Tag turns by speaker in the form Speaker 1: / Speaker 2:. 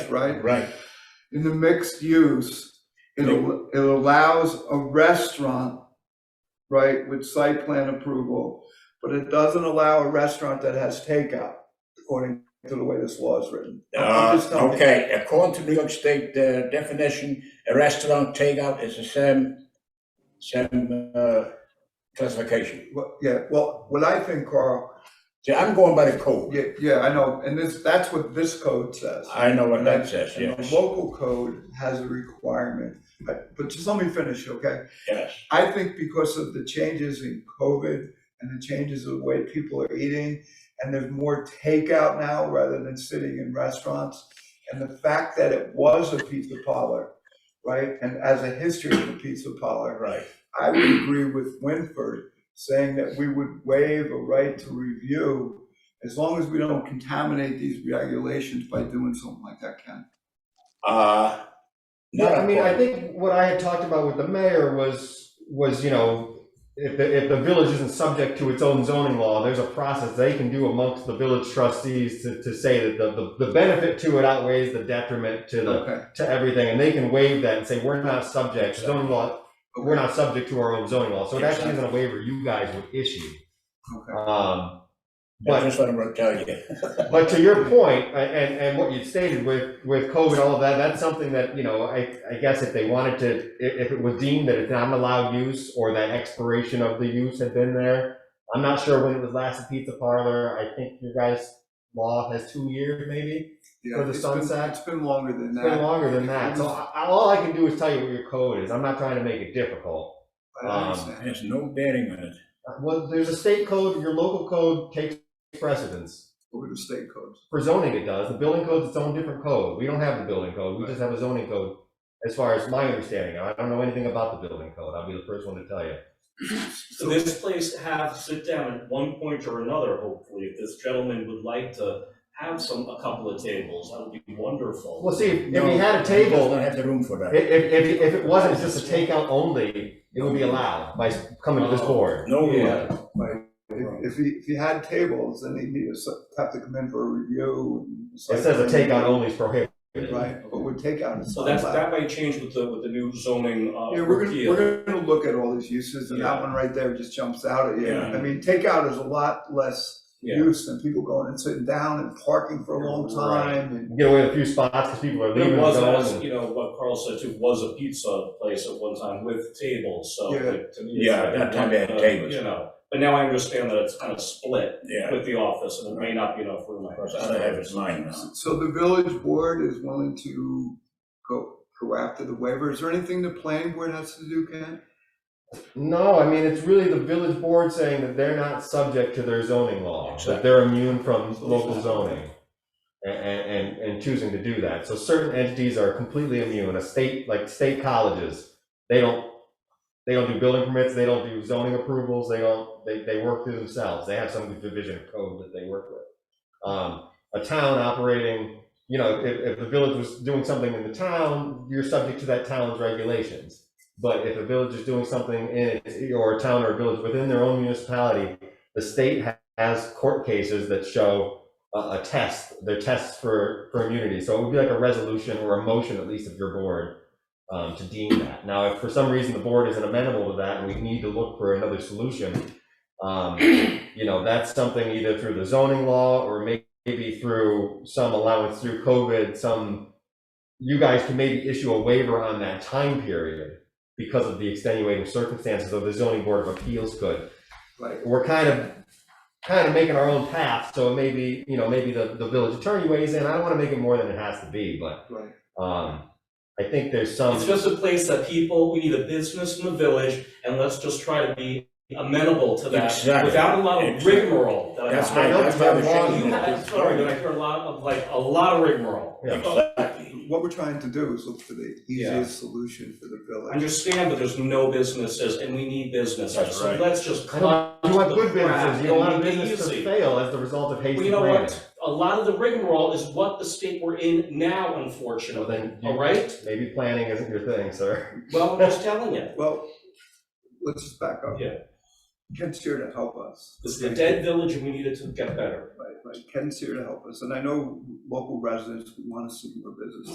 Speaker 1: right?
Speaker 2: Right,
Speaker 1: In the mixed use, it, al- it allows a restaurant, right, with site plan approval, but it doesn't allow a restaurant that has takeout, according to the way this law is written. I'm- I'm
Speaker 2: uh,
Speaker 1: just telling you.
Speaker 2: okay, according to New York State uh, definition, a restaurant takeout is the same, same, uh, classification.
Speaker 1: Well, Yeah, well, what I think, Carl,
Speaker 2: See, I'm going by the code,
Speaker 1: yeah, yeah, I know, and this, that's what this code says.
Speaker 2: I know what that says,
Speaker 1: And the
Speaker 2: yes,
Speaker 1: local code has a requirement, I- but just let me finish, okay?
Speaker 2: yes,
Speaker 1: I think because of the changes in COVID and the changes of the way people are eating, and there's more takeout now rather than sitting in restaurants, and the fact that it was a pizza parlor, right? And as a history of the pizza parlor,
Speaker 2: right,
Speaker 1: I would agree with Winford saying that we would waive a right to review as long as we don't contaminate these regulations by doing something like that, Ken.
Speaker 2: uh.
Speaker 3: Yeah,
Speaker 2: not
Speaker 3: I mean, I
Speaker 2: according-
Speaker 3: think what I had talked about with the mayor was, was, you know, if the, if the village isn't subject to its own zoning law, there's a process they can do amongst the village trustees to, to say that the, the, the benefit to it outweighs the detriment to the,
Speaker 1: Okay.
Speaker 3: to everything, and they can waive that and say, we're not subject, zoning law, we're not subject to our own zoning law, so it actually isn't a waiver you guys would issue.
Speaker 1: Okay.
Speaker 3: Um,
Speaker 2: That's just what I'm gonna tell you.
Speaker 3: but to your point, a- and, and what you stated with, with COVID, all of that, that's something that, you know, I, I guess if they wanted to, if, if it was deemed that it's not an allowed use or that expiration of the use had been there, I'm not sure when it was last a pizza parlor, I think your guys' law has two years maybe,
Speaker 1: Yeah,
Speaker 3: For the
Speaker 1: it's been-
Speaker 3: sunset?
Speaker 1: It's been longer than
Speaker 3: it's been
Speaker 1: that.
Speaker 3: longer than that, so I, I- all I can do is tell you what your code is, I'm not trying to make it difficult.
Speaker 1: I
Speaker 3: um,
Speaker 1: understand.
Speaker 2: There's no bearing on it.
Speaker 3: Well, there's a state code, your local code takes precedence.
Speaker 1: Over the state codes.
Speaker 3: For zoning, it does. The building code's its own different code. We don't have the building code. We just have a zoning code. As far as my understanding, I don't know anything about the building code. I'll be the first one to tell you.
Speaker 4: So this place have sit down at one point or another, hopefully, if this gentleman would like to have some, a couple of tables, that would be wonderful.
Speaker 3: Well, see, if if
Speaker 2: No,
Speaker 3: we had a
Speaker 2: He does
Speaker 3: table,
Speaker 2: not have the room for
Speaker 3: i-
Speaker 2: that.
Speaker 3: if, if, if it wasn't just a takeout only, it would be allowed by coming to this board.
Speaker 2: No
Speaker 4: Yeah.
Speaker 2: room.
Speaker 1: If, if he, if he had tables, then he'd need to s- have to come in for a review and.
Speaker 3: It says a takeout only is prohibited.
Speaker 1: Right, but with takeout. it's
Speaker 4: So that's,
Speaker 1: allowed.
Speaker 4: that might change with the, with the new zoning, uh,
Speaker 1: Yeah, we're gonna,
Speaker 4: repeal.
Speaker 1: we're gonna look at all these uses, and that
Speaker 4: Yeah.
Speaker 1: one right there just jumps out at you.
Speaker 2: Yeah.
Speaker 1: I mean, takeout is a lot less
Speaker 4: Yeah.
Speaker 1: use than people going and sitting down and parking for a long
Speaker 4: Right.
Speaker 1: time, and
Speaker 3: Get away with a few spots because people are leaving
Speaker 4: It
Speaker 3: and
Speaker 4: was,
Speaker 3: going.
Speaker 4: as, you know, what Carl said too, was a pizza place at one time with tables, so
Speaker 1: Yeah.
Speaker 4: like, to me. it's
Speaker 2: Yeah,
Speaker 4: like,
Speaker 2: that time they had
Speaker 4: uh,
Speaker 2: tables.
Speaker 4: You know, but now I understand that it's kind of split
Speaker 2: Yeah,
Speaker 4: with the office, and there may not be enough room. I
Speaker 2: because I don't have his line now.
Speaker 1: so the village board is willing to go, go after the waiver. Is there anything the planning board has to do, Ken?
Speaker 3: No, I mean, it's really the village board saying that they're not subject to their zoning law, that
Speaker 2: Exactly.
Speaker 3: they're immune from local zoning. And, and, and choosing to do that. So certain entities are completely immune, a state, like state colleges, they don't, they don't do building permits, they don't do zoning approvals, they don't, they, they work through themselves. They have some division of code that they work with. Um, a town operating, you know, if, if the village was doing something in the town, you're subject to that town's regulations. But if a village is doing something in, its- or a town or a village within their own municipality, the state ha- has court cases that show a, a test, they're tests for, for immunity. So it would be like a resolution or a motion, at least of your board, um, to deem that. Now, if for some reason the board isn't amenable to that and we need to look for another solution, um, you know, that's something either through the zoning law or may- maybe through some allowance through COVID, some, you guys can maybe issue a waiver on that time period because of the extenuating circumstances of the zoning board of appeals could.
Speaker 1: Right.
Speaker 3: We're kind of, kind of making our own path, so maybe, you know, maybe the, the village attorney weighs in, I don't wanna make it more than it has to be, but,
Speaker 1: Right.
Speaker 3: um, I think there's some.
Speaker 4: It's just a place that people, we need a business in the village, and let's just try to be amenable to that
Speaker 2: Exactly.
Speaker 4: without a lot of
Speaker 2: Exactly.
Speaker 4: rigmarole that I.
Speaker 2: That's
Speaker 3: I
Speaker 2: right,
Speaker 3: know
Speaker 2: that's
Speaker 3: it's not
Speaker 2: why the
Speaker 3: wrong.
Speaker 2: change
Speaker 4: You have, I'm
Speaker 2: is.
Speaker 4: sorry, but I hear a lot of, like, a lot of rigmarole.
Speaker 3: Yeah.
Speaker 2: Exactly.
Speaker 1: What we're trying to do is look for the
Speaker 4: Yeah.
Speaker 1: easiest solution for the village.
Speaker 4: Understand that there's no businesses and we need businesses,
Speaker 2: That's
Speaker 4: so
Speaker 2: right.
Speaker 4: let's just.
Speaker 3: I don't, you want good
Speaker 4: crap
Speaker 3: businesses, you don't
Speaker 4: and
Speaker 3: want a
Speaker 4: make it
Speaker 3: business to
Speaker 4: easy.
Speaker 3: fail as the result of
Speaker 4: Well,
Speaker 3: hasty
Speaker 4: you know
Speaker 3: planning.
Speaker 4: what, a lot of the rigmarole is what the state we're in now,
Speaker 3: Well,
Speaker 4: unfortunately,
Speaker 3: then, you-
Speaker 4: all right?
Speaker 3: maybe planning isn't your thing, sir.
Speaker 4: Well, I'm just telling you,
Speaker 1: Well, let's just back up.
Speaker 4: Yeah.
Speaker 1: Ken's here to help us.
Speaker 4: this is a dead village and we need it to get better.
Speaker 1: Right. but Ken's here to help us, and I know local residents want to see more business